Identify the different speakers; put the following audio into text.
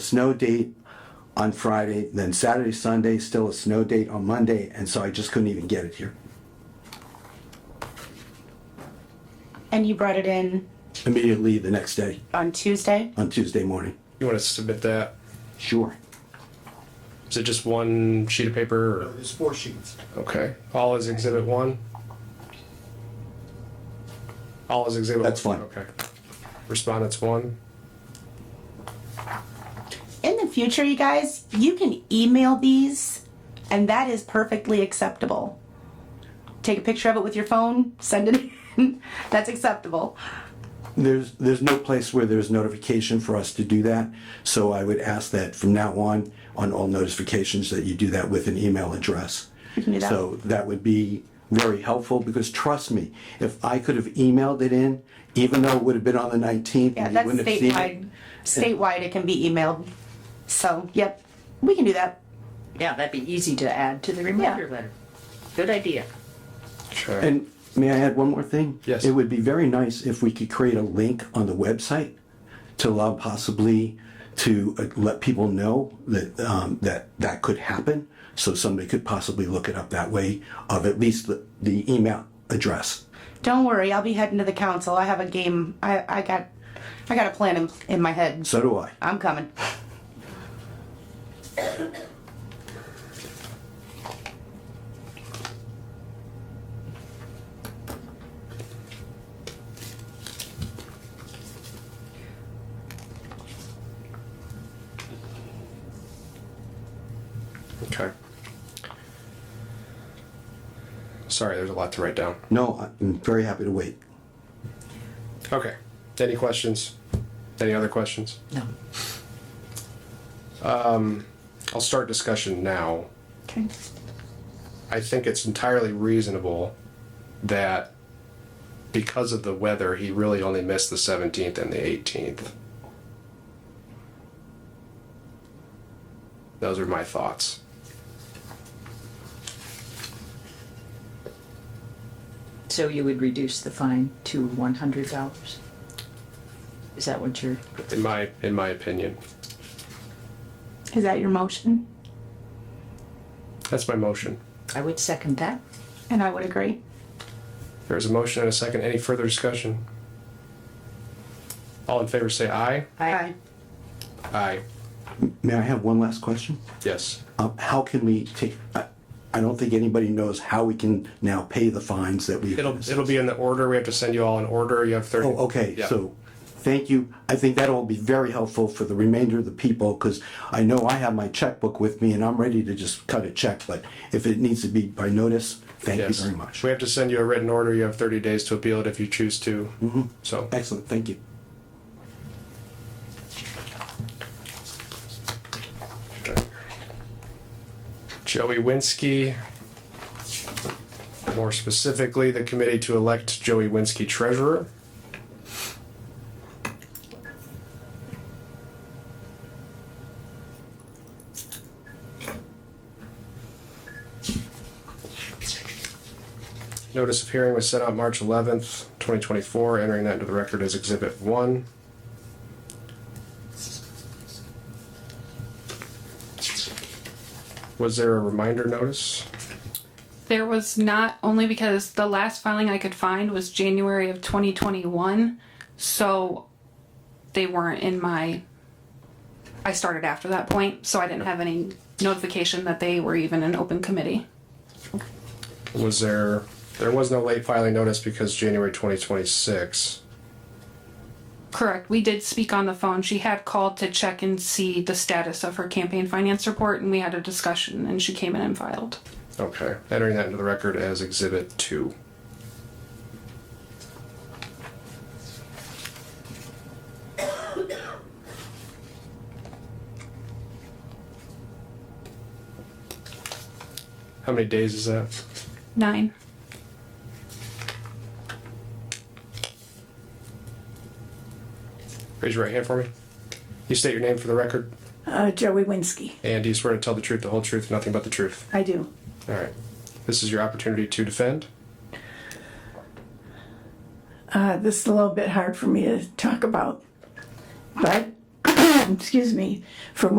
Speaker 1: snow date on Friday, then Saturday, Sunday, still a snow date on Monday, and so I just couldn't even get it here
Speaker 2: And you brought it in
Speaker 1: immediately the next day
Speaker 2: on Tuesday?
Speaker 1: on Tuesday morning.
Speaker 3: You want to submit that?
Speaker 1: Sure.
Speaker 3: Is it just one sheet of paper? Or?
Speaker 4: There's four sheets.
Speaker 3: Okay. All is exhibit one? All is exhibit
Speaker 1: That's
Speaker 3: one?
Speaker 1: fine.
Speaker 3: Okay. Respondents one?
Speaker 2: In the future, you guys, you can email these, and that is perfectly acceptable. Take a picture of it with your phone, send it in. That's acceptable.
Speaker 1: There's, there's no place where there's notification for us to do that, so I would ask that from now on, on all notifications, that you do that with an email address.
Speaker 2: can do that.
Speaker 1: So that would be very helpful, because trust me, if I could have emailed it in, even though it would have been on the 19th.
Speaker 2: Yeah,
Speaker 1: and you
Speaker 2: that's
Speaker 1: wouldn't have seen it,
Speaker 2: statewide. Statewide, it can be emailed. So, yep, we can do that.
Speaker 5: Yeah, that'd be easy to add to the reminder
Speaker 2: Yeah.
Speaker 5: letter. Good idea.
Speaker 3: Sure.
Speaker 1: And may I add one more thing?
Speaker 3: Yes.
Speaker 1: It would be very nice if we could create a link on the website to allow possibly to uh, let people know that, um, that that could happen. So somebody could possibly look it up that way of at least the, the email address.
Speaker 2: Don't worry, I'll be heading to the council. I have a game. I, I got, I got a plan in, in my head.
Speaker 1: So do I.
Speaker 2: I'm coming.
Speaker 3: okay. Sorry, there's a lot to write down.
Speaker 1: No, I'm very happy to wait.
Speaker 3: Okay. Any questions? Any other questions?
Speaker 5: No.
Speaker 3: I'll start discussion now.
Speaker 2: Okay.
Speaker 3: I think it's entirely reasonable that because of the weather, he really only missed the 17th and the 18th. Those are my thoughts.
Speaker 5: So you would reduce the fine to one hundred dollars? Is that what you're,
Speaker 3: In my in my opinion,
Speaker 2: Is that your motion?
Speaker 3: that's my motion.
Speaker 5: I would second that.
Speaker 2: And I would agree.
Speaker 3: There's a motion and a second. Any further discussion? All in favor, say aye.
Speaker 2: Aye.
Speaker 3: Aye.
Speaker 1: May I have one last question?
Speaker 3: Yes.
Speaker 1: Um, how can we take, I, I don't think anybody knows how we can now pay the fines that we.
Speaker 3: It'll it'll be in the order. We have to send you all an order. You have 30.
Speaker 1: Oh, okay,
Speaker 3: Yeah.
Speaker 1: so, thank you. I think that'll be very helpful for the remainder of the people, because I know I have my checkbook with me and I'm ready to just cut a check, but if it needs to be by notice, thank you
Speaker 3: Yes.
Speaker 1: very much.
Speaker 3: We have to send you a written order. You have 30 days to appeal it if you choose to.
Speaker 1: Mm-hmm.
Speaker 3: So,
Speaker 1: Excellent, thank you.
Speaker 3: Joey Winsky, more specifically, the committee to elect Joey Winsky treasurer. Notice of hearing was sent out March 11th, 2024, entering that into the record as Exhibit 1. Was there a reminder notice?
Speaker 6: There was not only because the last filing I could find was January of 2021, so they weren't in my. I started after that point, so I didn't have any notification that they were even an open committee.
Speaker 3: Was there, there was no late filing notice because January 2026.
Speaker 6: Correct. We did speak on the phone. She had called to check and see the status of her campaign finance report, and we had a discussion, and she came in and filed.
Speaker 3: Okay, entering that into the record as Exhibit 2. How many days is that?
Speaker 6: Nine.
Speaker 3: Raise your right hand for me. You state your name for the record,
Speaker 7: Uh, Joey Winsky.
Speaker 3: and do you swear to tell the truth, the whole truth, and nothing but the truth?
Speaker 7: I do.
Speaker 3: All right. This is your opportunity to defend.
Speaker 7: Uh, this is a little bit hard for me to talk about, but excuse me, from